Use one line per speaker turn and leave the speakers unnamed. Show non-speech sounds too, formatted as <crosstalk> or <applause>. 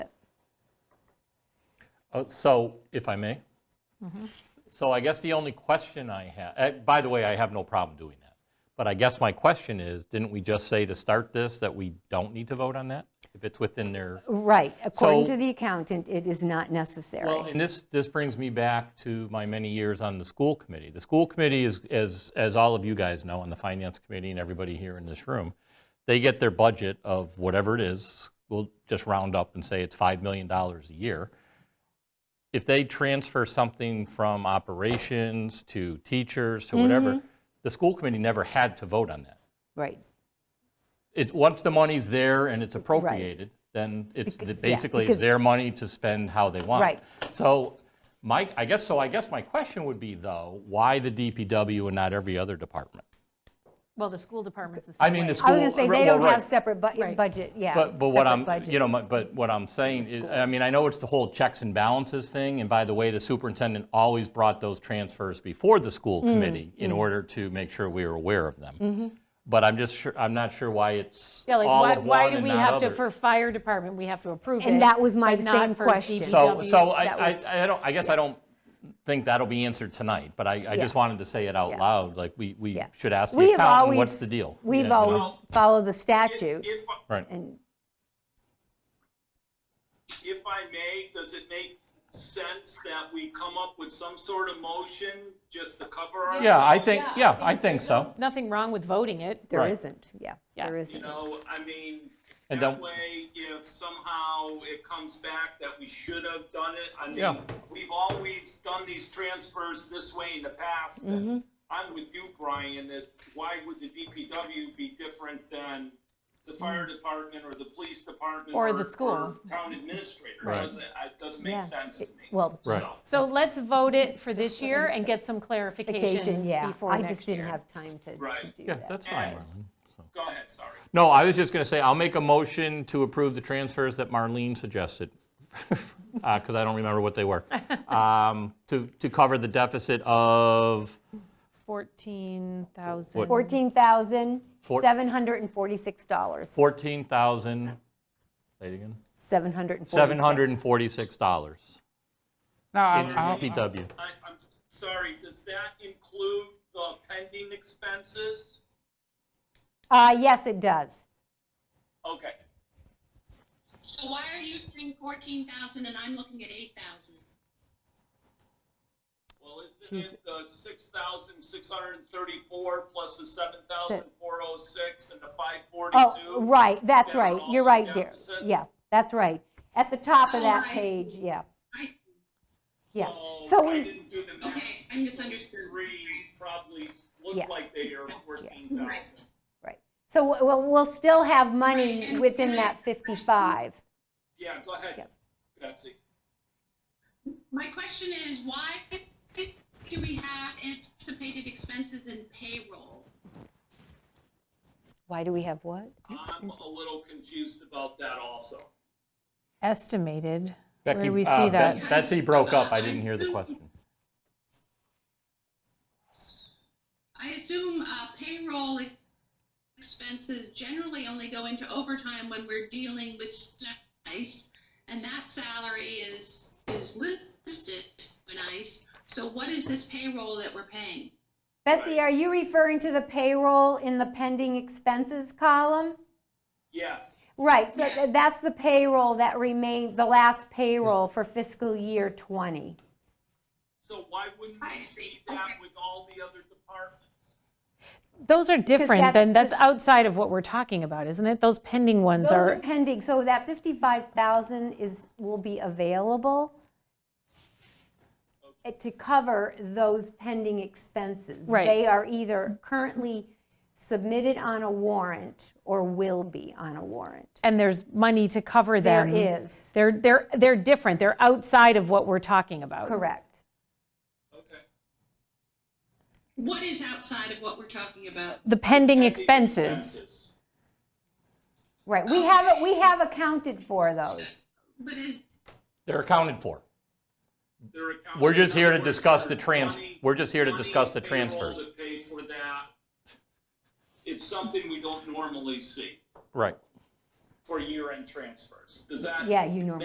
Oh, So, if I may?
Mm-hmm.
So I guess the only question I have, by the way, I have no problem doing that. But I guess my question is, didn't we just say to start this that we don't need to vote on that? If it's within their,
Right, according
So-
to the accountant, it is not
well,
necessary.
and this, this brings me back to my many years on the school committee. The school committee is, as, as all of you guys know, and the finance committee and everybody here in this room, they get their budget of whatever it is, we'll just round up and say it's $5 million a year. if they transfer something from operations to teachers to
Mm-hmm.
whatever, the school committee never had to vote on that.
Right,
It's, once the money's there and it's appropriated, then it's, the- basically it's
because-
their money to spend how they want.
Right.
So, Mike, I guess, so I guess my question would be though, why the DPW and not every other department?
Well, the school department's the same
I mean, the
way.
school.
I was going to say,
well,
they don't
right.
have separate bu-
Right.
budget, yeah.
But, but what
separate
I'm, you know,
budgets.
my- but what I'm saying is, I mean, I know it's the whole checks and balances thing, and by the way, the superintendent always brought those transfers before the school
Mm,
committee in order to make sure we were aware of
Mm-hmm.
them. But I'm just sure, I'm not sure why it's
Yeah, like,
all
why,
of
why
one
do
and
we
not
have to,
other.
for fire department, we have to approve it?
And that was my
but not
same
for
question.
So,
DPW?
so I,
that was-
I, I don't, I guess I don't think that'll be answered tonight, but I, I just
Yeah.
wanted to say it out
Yeah.
loud, like, we, we
Yeah.
should ask
We
the
have
accountant,
always-
what's the deal? Yeah, you
We've
know?
always followed the statute,
If,
Right.
and
if I may, does it make sense that we come up with some sort of motion just to cover our?
Yeah, I think, yeah, I think so.
Nothing wrong with voting it.
there
Right.
isn't, yeah,
Yeah.
there
You
isn't.
know, I mean,
And
that
don't-
way, if somehow it comes back that we should have done it, I
Yeah.
mean, we've always done these transfers this way in the past. and I'm with you, Brian, that why would the DPW be different than the fire department or the police department?
Or the school.
Town administrator,
Right.
doesn't, it doesn't make
Yeah.
sense to me.
Well,
Right.
So-
So let's vote it for this year and get some
vacation,
clarification
yeah,
before
I just
next
didn't
year.
have time to to
Right.
do
Yeah,
that.
that's fine,
And-
Marlene. So-
Go ahead, sorry.
No, I was just going to say, I'll make a motion to approve the transfers that Marlene suggested, <laughs> because I don't remember what they
<laughs>
were, Um, to, to cover the deficit of,
14,000.
$14,746.
Fourteen thousand. Say it again.
$746.
$746
No,
in
I'm, I'm-
DPW.
I, I'm sorry, does that include the pending expenses?
Uh, Yes, it does.
Okay,
So why are you seeing fourteen thousand and I'm looking at eight thousand?
well, isn't
She's-
it the six thousand six hundred and thirty-four plus the seven thousand four oh six and the five
Oh,
forty-two?
right, that's
They're
right,
all
you're right, dear,
deficit.
yeah, that's right. At the top of
Oh,
that
I see.
page, yeah,
I see,
yeah. So
Oh, I
we,
didn't do the math.
okay, I misunderstood.
Three probably
Yeah.
look like they are fourteen thousand.
right, so we- we'll, we'll still have
Right,
money
and-
within
and I-
that 55.
Yeah, go ahead,
Yep.
Betsy.
My question is, why do we have anticipated expenses in payroll?
Why do we have what?
I'm a little confused about that also.
Estimated. Where
Becky,
do we
uh,
see
Bet-
that?
Betsy broke up, I didn't hear the question.
I assume, uh, payroll e- expenses generally only go into overtime when we're dealing with ICE, and that salary is, is listed in ICE. So what is this payroll that we're paying?
Betsy, are you referring to the payroll in the pending expenses column?
Yes,
Right, so
Yes.
th- that's the payroll that remained, the last payroll for fiscal year 20.
so why wouldn't
I
we
see.
see that
Okay.
with all the other departments?
Those are different
that's
than, that's
just-
outside of what we're talking about, isn't it? Those pending ones
Those are
are,
pending, so that 55,000 is, will be available eh, to cover those pending expenses.
Right.
They are either currently submitted on a warrant or will be on a warrant.
and there's money to cover
There
them.
is,
They're, they're, they're different. They're outside of what we're talking about.
correct.
Okay.
What is outside of what we're talking about?
The pending
Pending
expenses.
Right, we have, it. we have accounted for those.
But is,
They're accounted for.
Their account-
We're just here to
in other words,
discuss the
there's
trans,
money-
we're just here to
money
discuss the
in payroll
transfers.
to pay for that. It's something we don't normally see
Right.
for year-end transfers. Does that
Yeah, you normally